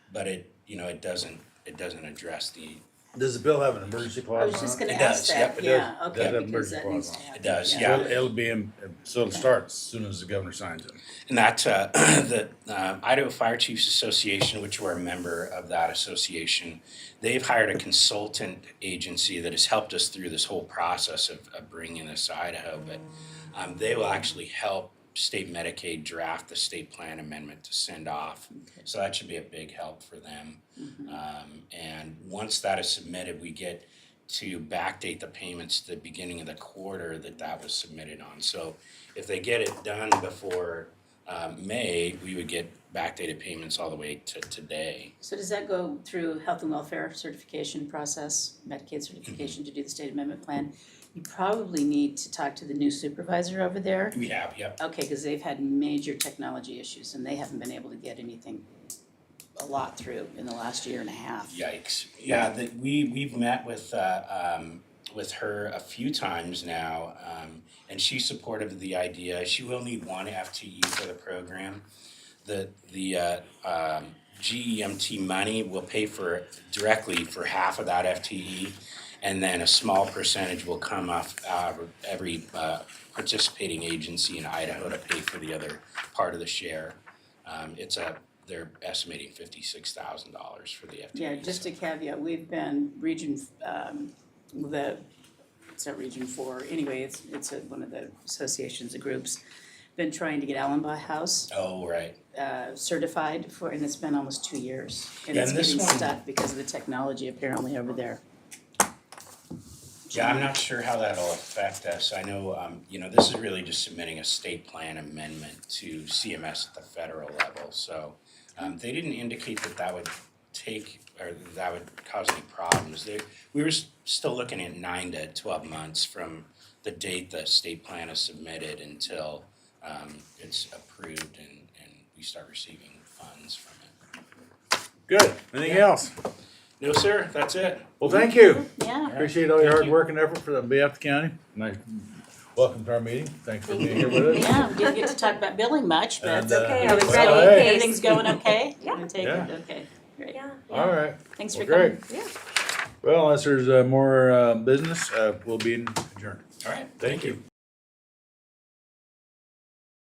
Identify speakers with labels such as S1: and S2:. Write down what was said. S1: but it, you know, it doesn't, it doesn't address the,
S2: Does the bill have an emergency
S3: I
S2: clause
S3: was just
S2: on it?
S3: gonna
S1: It
S3: ask
S1: does, yep,
S3: that,
S2: it
S3: yeah,
S2: does. Does
S3: okay,
S2: have
S3: because
S2: emergency
S3: that
S2: clause
S3: needs to
S2: on
S3: happen.
S1: It does, yeah.
S2: It'll, it'll be in, so it'll start as soon as the governor signs it.
S1: and that's, uh, the, um, Idaho Fire Chiefs Association, which we're a member of that association. They've hired a consultant agency that has helped us through this whole process of, of bringing this to Idaho, but, um, they will actually help state Medicaid draft the state plan amendment to send off. So that should be a big help for them.
S3: Mm-hmm.
S1: Um, and once that is submitted, we get to backdate the payments to the beginning of the quarter that that was submitted on. So if they get it done before, um, May, we would get backdated payments all the way to today.
S3: So does that go through health and welfare certification process, Medicaid certification to do the state amendment plan? You probably need to talk to the new supervisor over there.
S1: We have, yep.
S3: Okay, because they've had major technology issues and they haven't been able to get anything, a lot through in the last year and a half.
S1: Yikes. Yeah, that we we've met with uh, um, with her a few times now, um, and she's supportive of the idea. She will need one FTE for the program. The the uh, um, GEMT money will pay for directly for half of that E. FTE, and then a small percentage will come off uh, every uh, participating agency in Idaho to pay for the other part of the share. Um, it's a they're estimating fifty six thousand dollars for the FTE.
S3: Yeah, just a caveat, we've been region, um, the, it's not region four, anyway, it's, it's a- one of the associations, the groups, been trying to get Allenby House
S1: Oh, right.
S3: uh, certified for, and it's been almost two years. And
S1: Yeah,
S3: it's
S1: and this
S3: getting
S1: one-
S3: stuck because of the technology apparently over there.
S1: Yeah, I'm not sure how that'll affect us. I know, um, you know, this is really just submitting a state plan amendment to CMS at the federal level, so. Um, they didn't indicate that that would take, or that would cause any problems. They, we were s- still looking at nine to twelve months from the date the state plan is submitted until, um, it's approved and, and we start receiving funds from it.
S2: Good. Anything else?
S1: No, sir, that's it.
S2: Well, thank you.
S3: Yeah,
S2: Appreciate all your
S1: Thank
S2: hard
S1: you.
S2: work and effort for the behalf of the county. Nice. Welcome to our meeting. Thanks for being here with us.
S3: yeah, we didn't get to talk about billing much, but
S2: And, uh,
S4: okay. I was
S2: well,
S4: ready.
S2: hey,
S3: everything's going okay?
S4: Yeah.
S3: You take it,
S2: Yeah.
S3: Okay, great.
S4: Yeah.
S2: All right.
S3: Thanks for
S2: Well,
S3: coming.
S2: great.
S4: Yeah.
S2: Well, unless there's uh, more uh, business, uh, we'll be adjourned.
S1: All right,
S2: Thank you.